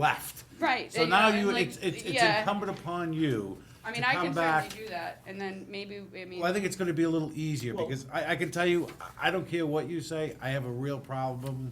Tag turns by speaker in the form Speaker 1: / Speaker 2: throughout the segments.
Speaker 1: left.
Speaker 2: Right,
Speaker 1: So
Speaker 2: and-
Speaker 1: now
Speaker 2: and
Speaker 1: you,
Speaker 2: like,
Speaker 1: it's, it's it's
Speaker 2: yeah.
Speaker 1: incumbent upon you
Speaker 2: I
Speaker 1: to
Speaker 2: mean, I
Speaker 1: come
Speaker 2: can
Speaker 1: back.
Speaker 2: certainly do that, and then maybe, I mean,
Speaker 1: Well, I think it's gonna be a little easier,
Speaker 3: Well-
Speaker 1: because I, I can tell you, I- I don't care what you say, I have a real problem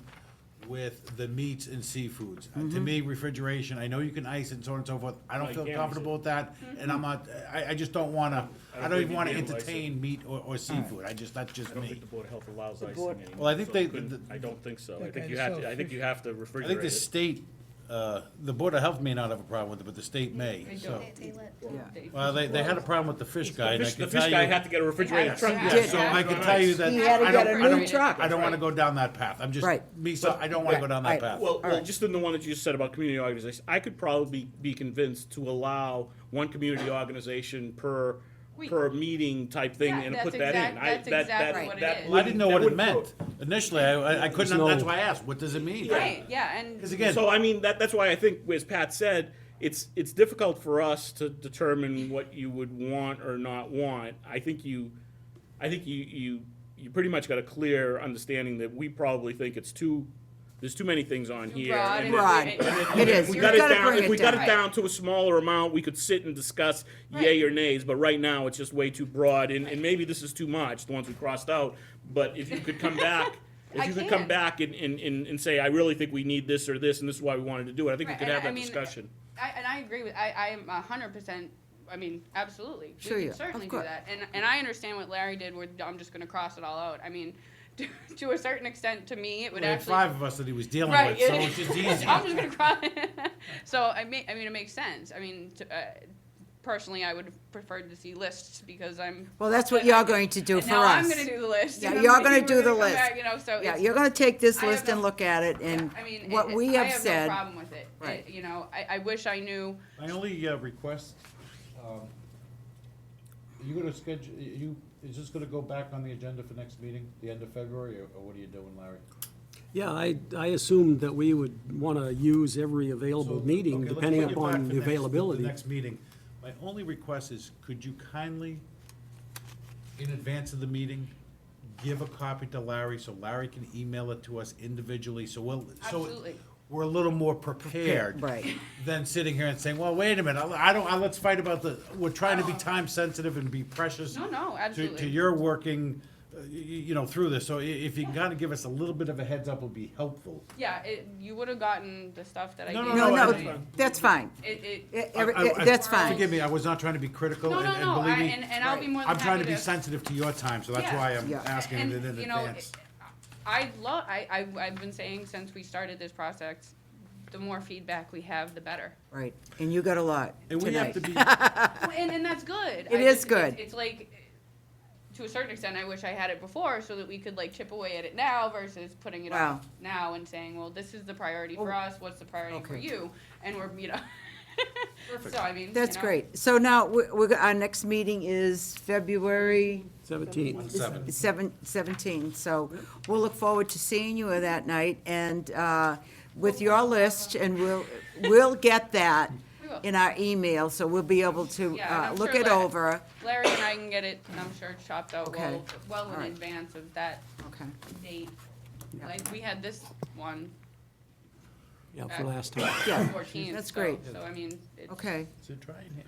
Speaker 1: with the meats and seafoods. Uh,
Speaker 2: Mm-hmm.
Speaker 1: To me, refrigeration, I know you can ice it and so on and so forth, I don't
Speaker 3: Right,
Speaker 1: feel
Speaker 3: yeah,
Speaker 1: comfortable with that,
Speaker 2: Mm-hmm.
Speaker 1: and I'm not, I, I just don't wanna,
Speaker 3: I
Speaker 1: I
Speaker 3: don't
Speaker 1: don't
Speaker 3: think
Speaker 1: even
Speaker 3: you'd
Speaker 1: wanna
Speaker 3: be able to ice it.
Speaker 1: entertain meat or, or seafood, I just, that's
Speaker 3: I
Speaker 1: just
Speaker 3: don't think
Speaker 1: me.
Speaker 3: the Board of Health allows icing
Speaker 4: board-
Speaker 3: anymore.
Speaker 1: Well, I think
Speaker 3: so
Speaker 1: they-
Speaker 3: it couldn't-
Speaker 1: the-
Speaker 3: I don't think so. I
Speaker 4: Okay,
Speaker 3: think you have,
Speaker 4: so
Speaker 3: to. I think you have to refrigerate
Speaker 1: I think the
Speaker 3: it.
Speaker 1: state, uh, the Board of Health may not have a problem with it, but the state may,
Speaker 2: They
Speaker 1: so.
Speaker 2: don't.
Speaker 5: They let,
Speaker 2: they-
Speaker 1: Well, they, they had a problem with the fish guy,
Speaker 3: The
Speaker 1: and I
Speaker 3: fish, the
Speaker 1: can
Speaker 3: fish
Speaker 1: tell
Speaker 3: guy
Speaker 1: you.
Speaker 3: had to get a refrigerated
Speaker 2: to
Speaker 3: truck.
Speaker 2: have
Speaker 1: Yeah,
Speaker 2: Did.
Speaker 1: so I can tell you that.
Speaker 4: He had
Speaker 1: I
Speaker 4: to get
Speaker 1: don't-
Speaker 4: a
Speaker 1: I
Speaker 4: new
Speaker 1: don't-
Speaker 4: truck.
Speaker 1: I don't wanna go down that path, I'm just,
Speaker 4: Right.
Speaker 1: me, so, I don't wanna go down that
Speaker 4: Right,
Speaker 1: path.
Speaker 3: Well, well, just in the one that you said about community organizations, I could probably be convinced to allow one community organization per,
Speaker 2: We-
Speaker 3: per meeting type thing
Speaker 2: Yeah,
Speaker 3: and
Speaker 2: that's
Speaker 3: put that in.
Speaker 2: exact-
Speaker 3: I-
Speaker 2: that's
Speaker 3: that- that-
Speaker 2: exactly what it
Speaker 3: that
Speaker 2: is.
Speaker 1: Well, I
Speaker 3: wouldn't-
Speaker 1: didn't know
Speaker 3: that
Speaker 1: what it
Speaker 3: wouldn't
Speaker 1: meant
Speaker 3: pro-
Speaker 1: initially, I- I, I couldn't,
Speaker 6: There's no-
Speaker 1: that's why I asked, what does it mean?
Speaker 2: Right, yeah, and.
Speaker 1: Cause again,
Speaker 3: So, I mean, that, that's why I think, as Pat said, it's, it's difficult for us to determine what you would want or not want. I think you, I think you, you, you pretty much got a clear understanding that we probably think it's too, there's too many things on
Speaker 2: Too
Speaker 3: here.
Speaker 2: broad
Speaker 3: and
Speaker 2: and-
Speaker 3: if-
Speaker 4: Broad.
Speaker 2: and- and-
Speaker 4: It is.
Speaker 3: we
Speaker 4: You've
Speaker 3: got it
Speaker 4: gotta
Speaker 3: down,
Speaker 4: bring
Speaker 3: if
Speaker 4: it
Speaker 3: we got it
Speaker 4: down.
Speaker 3: down to a smaller amount, we could sit and discuss yay or nays, but right now, it's just way too broad, and, and maybe this is too much, the ones we crossed out, but if you could come back,
Speaker 2: I
Speaker 3: if you could come
Speaker 2: can.
Speaker 3: back and, and, and, and say, I really think we need this or this, and this is why we wanted to do it, I think we
Speaker 2: Right,
Speaker 3: could
Speaker 2: and
Speaker 3: have
Speaker 2: I
Speaker 3: that
Speaker 2: mean,
Speaker 3: discussion.
Speaker 2: I, and I agree with, I, I am a hundred percent, I mean, absolutely. We
Speaker 4: Sure
Speaker 2: can
Speaker 4: you- of
Speaker 2: Certainly do
Speaker 4: course.
Speaker 2: that, and, and I understand what Larry did, where I'm just gonna cross it all out, I mean, to, to a certain extent, to me, it would
Speaker 1: there were
Speaker 2: actually.
Speaker 1: five of us that he was dealing
Speaker 2: Right,
Speaker 1: with, so
Speaker 2: yeah.
Speaker 1: it's just easy.
Speaker 2: I'm just gonna cry. so I mean, I mean, it makes sense. I mean, to, uh, personally, I would have preferred to see lists because I'm.
Speaker 4: Well, that's what you're going to do
Speaker 2: and
Speaker 4: for
Speaker 2: now I'm
Speaker 4: us.
Speaker 2: gonna do the list.
Speaker 4: Yeah,
Speaker 2: and I'm
Speaker 4: you're gonna
Speaker 2: we're
Speaker 4: do the
Speaker 2: come
Speaker 4: list.
Speaker 2: back, you know, so
Speaker 4: Yeah,
Speaker 2: it's-
Speaker 4: you're gonna take this
Speaker 2: I have
Speaker 4: list and
Speaker 2: no-
Speaker 4: look at it, and
Speaker 2: I mean,
Speaker 4: what
Speaker 2: it-
Speaker 4: we
Speaker 2: I
Speaker 4: have
Speaker 2: no
Speaker 4: said,
Speaker 2: problem with it. It-
Speaker 4: Right.
Speaker 2: you know, I, I wish I knew.
Speaker 1: My only uh, request, um, are you gonna schedule, are you, is this gonna go back on the agenda for next meeting, the end of February, or or what are you doing, Larry?
Speaker 6: Yeah, I, I assumed that we would want to use every available
Speaker 1: So,
Speaker 6: meeting,
Speaker 1: okay, let's
Speaker 6: depending
Speaker 1: bring it back
Speaker 6: upon
Speaker 1: for
Speaker 6: the
Speaker 1: next-
Speaker 6: availability.
Speaker 1: The next meeting. My only request is, could you kindly, in advance of the meeting, give a copy to Larry so Larry can email it to us individually, so we'll, so
Speaker 2: Absolutely.
Speaker 1: we're a little more prepared.
Speaker 4: Right.
Speaker 1: Than sitting here and saying, well, wait a minute, I I don't, I- let's fight about the, we're trying to be time sensitive and be precious.
Speaker 2: No, no,
Speaker 1: to- To
Speaker 2: absolutely.
Speaker 1: your working, uh, y- y- you know, through this, so i- if you can kind of give us a little bit of a heads up, it'll be helpful.
Speaker 2: Yeah, it, you would have gotten the stuff that I
Speaker 1: No,
Speaker 2: gave.
Speaker 4: no,
Speaker 1: No, I-
Speaker 4: no, that's fine.
Speaker 2: It, it,
Speaker 4: E-
Speaker 1: I-
Speaker 4: every-
Speaker 1: I- I-
Speaker 4: That's fine.
Speaker 1: Forgive me, I was not trying to be critical,
Speaker 2: no,
Speaker 1: and
Speaker 2: no,
Speaker 1: and
Speaker 2: no. I,
Speaker 1: believe me,
Speaker 2: and, and I'll be more than
Speaker 1: I'm
Speaker 2: happy
Speaker 1: trying to be
Speaker 2: to
Speaker 1: sensitive to your time, so that's
Speaker 2: Yeah.
Speaker 1: why I'm
Speaker 4: Yeah.
Speaker 1: asking
Speaker 2: And,
Speaker 1: it in
Speaker 2: you know,
Speaker 1: advance.
Speaker 2: I love, I, I, I've been saying since we started this process, the more feedback we have, the better.
Speaker 4: Right, and you got a lot
Speaker 1: And we have
Speaker 4: tonight.
Speaker 1: to be,
Speaker 2: Well, And, and that's good.
Speaker 4: It
Speaker 2: I
Speaker 4: is
Speaker 2: just-
Speaker 4: good.
Speaker 2: It's, it's like, to a certain extent, I wish I had it before so that we could like chip away at it now versus putting it
Speaker 4: Wow.
Speaker 2: off now and saying, well, this is the priority for
Speaker 4: Oh.
Speaker 2: us, what's the priority for
Speaker 4: Okay.
Speaker 2: you? And we're, you know, so I mean. you
Speaker 4: That's
Speaker 2: know.
Speaker 4: great. So now, we, we, our next meeting is February
Speaker 6: Seventeen.
Speaker 1: Seven.
Speaker 4: seven- 17, so we'll look forward to seeing you that night, and uh, with your list, and we'll, we'll get that
Speaker 2: We will.
Speaker 4: in our email, so we'll be able to
Speaker 2: Yeah, and
Speaker 4: uh,
Speaker 2: I'm
Speaker 4: look
Speaker 2: sure
Speaker 4: it
Speaker 2: Larry-
Speaker 4: over.
Speaker 2: Larry and I can get it, I'm sure chopped out
Speaker 4: Okay.
Speaker 2: well, well in
Speaker 4: Alright.
Speaker 2: advance of that
Speaker 4: Okay.
Speaker 2: date. Like, we had this one
Speaker 6: Yeah, for last time.
Speaker 4: Yeah,
Speaker 2: fourteenth.
Speaker 4: that's great.
Speaker 2: So, I mean, it's.
Speaker 4: Okay,
Speaker 1: so try and hear.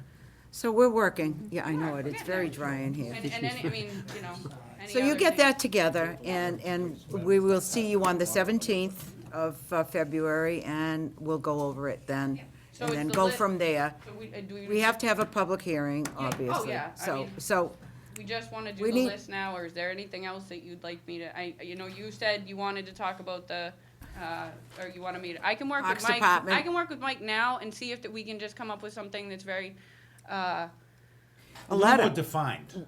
Speaker 4: so we're working. Yeah, I know
Speaker 2: Yeah,
Speaker 4: it, it's
Speaker 2: yeah,
Speaker 4: very
Speaker 2: no.
Speaker 4: dry in here.
Speaker 2: And, and any, I mean, you know, any
Speaker 4: So you
Speaker 2: other
Speaker 4: get
Speaker 2: thing-
Speaker 4: that together, and, and we will see you on the 17th of uh, February, and we'll go over it then,
Speaker 2: Yeah. So
Speaker 4: and
Speaker 2: it's
Speaker 4: then
Speaker 2: the
Speaker 4: go
Speaker 2: lit-
Speaker 4: from there.
Speaker 2: So we, uh, do we?
Speaker 4: We have to have a public hearing,
Speaker 2: oh,
Speaker 4: obviously.
Speaker 2: yeah, I
Speaker 4: So,
Speaker 2: mean-
Speaker 4: so,
Speaker 2: We just wanna do
Speaker 4: we
Speaker 2: the
Speaker 4: need-
Speaker 2: list now, or is there anything else that you'd like me to, I, you know, you said you wanted to talk about the, uh, or you wanna meet, I can work with
Speaker 4: Parks
Speaker 2: Mike.
Speaker 4: Department.
Speaker 2: I can work with Mike now and see if that we can just come up with something that's very, uh,
Speaker 4: a
Speaker 1: little more
Speaker 4: letter.
Speaker 1: Defined.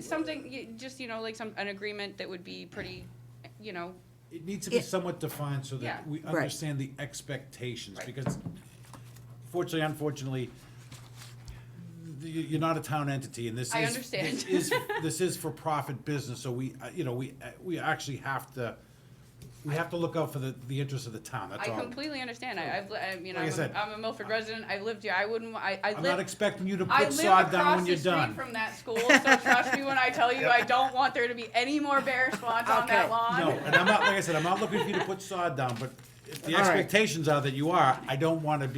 Speaker 2: something, you- just, you know, like some, an agreement that would be pretty, you know,
Speaker 1: It needs to be
Speaker 4: It-
Speaker 1: somewhat defined so that
Speaker 2: Yeah.
Speaker 1: we
Speaker 4: Right.
Speaker 1: understand the expectations, because fortunately, unfortunately, the- you- you're not a town entity, and this is.
Speaker 2: I understand.
Speaker 1: This is, this is for-profit business, so we, uh, you know, we, uh, we actually have to, we have to look out for the, the interests of the town, that's
Speaker 2: I
Speaker 1: all.
Speaker 2: completely understand. I, I've, li- I mean,
Speaker 1: Like I
Speaker 2: I'm,
Speaker 1: said,
Speaker 2: a, I'm a Milford resident. I lived here. I wouldn't. wa- I, I
Speaker 1: I'm
Speaker 2: live,
Speaker 1: not expecting you to
Speaker 2: I
Speaker 1: put
Speaker 2: live
Speaker 1: sod
Speaker 2: across
Speaker 1: down when
Speaker 2: the
Speaker 1: you're
Speaker 2: street
Speaker 1: done.
Speaker 2: from that school, so trust me when I tell you, I don't want there to be any more bear spots on
Speaker 4: Okay.
Speaker 2: that lawn.
Speaker 1: No, and I'm not, like I said, I'm not looking for you to put sod down, but if the
Speaker 4: All right.
Speaker 1: expectations are that you are, I don't want to be